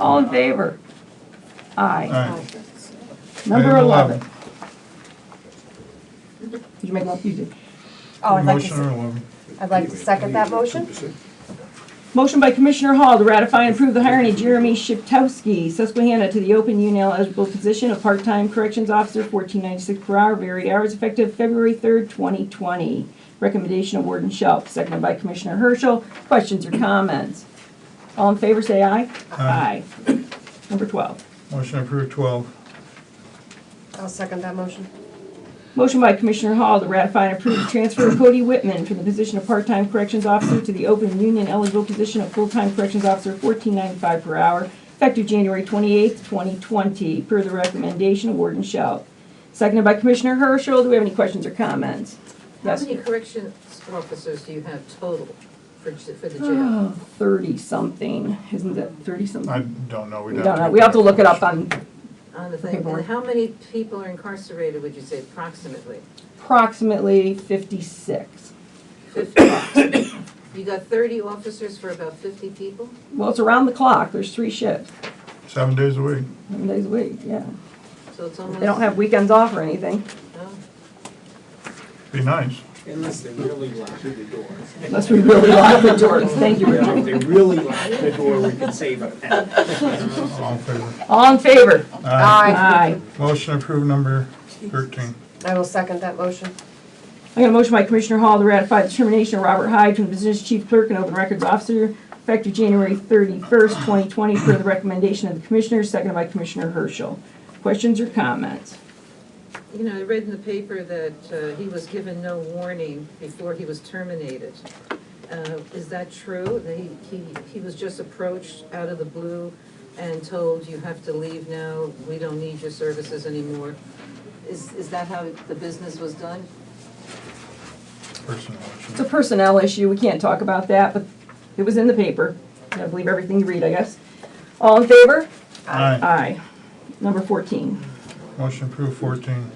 All in favor? All Aye. right. Number Item 11. Did you make one? You did. Oh, I'd like to, Motion or s- 11? I'd like to second that motion. Motion by Commissioner Hall to ratify and approve the hiring of Jeremy Shiptowski, Susquehanna, to the open UNL eligible position of part-time corrections officer, fourteen ninety-six per hour, varied hours, effective February third, twenty twenty. Recommendation of Warden Shelf, seconded by Commissioner Herschel. Questions or comments? All in favor, say aye. Aye. Aye. Number twelve. Motion approved 12. I'll second that motion. Motion by Commissioner Hall to ratify and approve the transfer of Cody Whitman from the position of part-time corrections officer to the open union eligible position of full-time corrections officer, fourteen ninety-five per hour, effective January twenty-eighth, twenty twenty, per the recommendation of Warden Shell. Seconded by Commissioner Herschel. Do we have any questions or comments? How Yes. many corrections officers do you have total for, j- for the jail? Thirty-something, isn't that thirty-something? I don't know. We don't know. We have to look it up on On the thing, and how many people are incarcerated, would you say approximately? approximately fifty-six. Fifty. You got thirty officers for about fifty people? Well, it's around the clock. There's three shifts, Seven days a week. seven days a week, yeah. So it's almost. They don't have weekends off or anything. Oh, Be nice. Unless they really lock the door. Unless we really lock the doors. Thank you, If Richard. they really lock the door, we could save a penny. All in favor? All in favor? Aye. Aye. Motion approved number 13. I will second that motion. I got a motion by Commissioner Hall to ratify the termination of Robert Hyde from the position of Chief Clerk and Open Records Officer effective January 31st, 2020, per the recommendation of the Commissioners, seconded by Commissioner Herschel. Questions or comments? You know, I read in the paper that uh, he was given no warning before he was terminated. Uh, Is that true? That he, he, he was just approached out of the blue and told, you have to leave now, we don't need your services anymore? Is, is that how the business was done? Person motion. It's a personnel issue, we can't talk about that, but it was in the paper. I believe everything you read, I guess. All in favor? Aye. Aye. Number 14. Motion approved 14.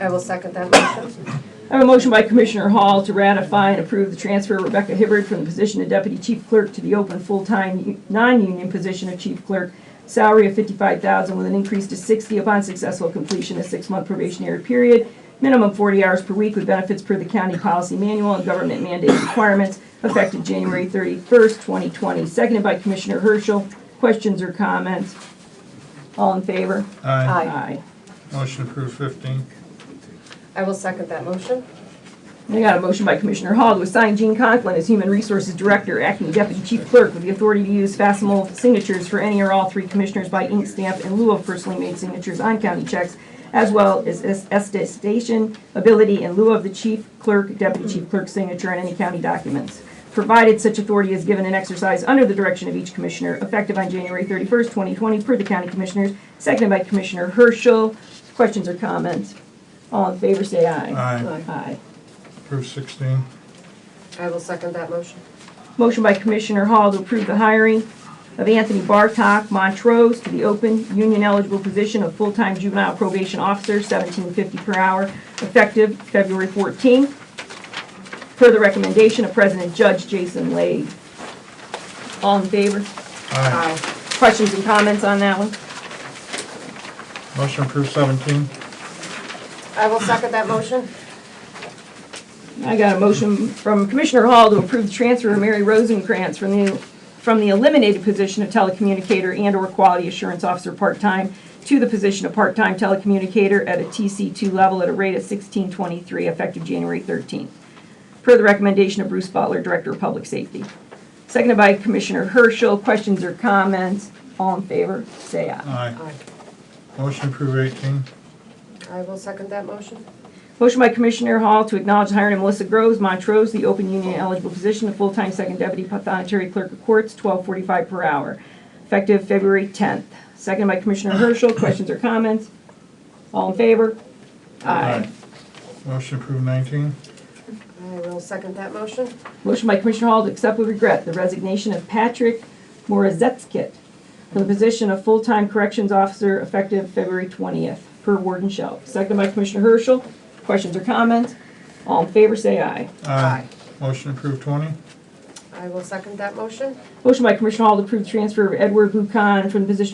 I will second that motion. I have a motion by Commissioner Hall to ratify and approve the transfer of Rebecca Hibbard from the position of Deputy Chief Clerk to the open full-time u- non-union position of Chief Clerk, salary of fifty-five thousand with an increase to sixty upon successful completion of six-month probationary period, minimum forty hours per week with benefits per the county policy manual and government mandated requirements, effective January thirty-first, twenty twenty. Seconded by Commissioner Herschel. Questions or comments? All in favor? Aye. Aye. Motion approved 15. I will second that motion. I got a motion by Commissioner Hall to assign Gene Conklin as Human Resources Director, acting Deputy Chief Clerk, with the authority to use facsimile signatures for any or all three commissioners by ink stamp in lieu of personally made signatures on county checks, as well as es- attestation ability in lieu of the chief clerk, deputy chief clerk signature on any county documents, provided such authority is given and exercised under the direction of each commissioner, effective on January 31st, 2020, per the county commissioners, seconded by Commissioner Herschel. Questions or comments? All in favor, say aye. Aye. Aye. Approved 16. I will second that motion. Motion by Commissioner Hall to approve the hiring of Anthony Bartok Montrose to the open, union-eligible position of full-time juvenile probation officer, $17.50 per hour, effective February 14th, per the recommendation of President Judge Jason Lade. All in favor? Aye. Questions and comments on that one? Motion approved 17. I will second that motion. I got a motion from Commissioner Hall to approve the transfer of Mary Rosenkrantz from the, from the eliminated position of telecommunicator and/or quality assurance officer part-time to the position of part-time telecommunicator at a TC2 level at a rate of 1623 effective January 13th, per the recommendation of Bruce Butler, Director of Public Safety. Seconded by Commissioner Herschel. Questions or comments? All in favor, say aye. Aye. Motion approved 18. I will second that motion. Motion by Commissioner Hall to acknowledge the hiring of Melissa Groves Montrose, the open union eligible position of full-time second deputy pathonetary clerk of courts, twelve forty-five per hour, effective February tenth. Second by Commissioner Herschel, questions or comments? All in favor? Motion approved 19. I will second that motion. Motion by Commissioner Hall to accept with regret the resignation of Patrick Morazetskit from the position of full-time corrections officer effective February twentieth, per Warden Shelf. Second by Commissioner Herschel, questions or comments? All in favor, say aye. Aye. Motion approved 20. I I will second that motion. Motion by Commissioner Hall to approve transfer of Edward Buchan from the position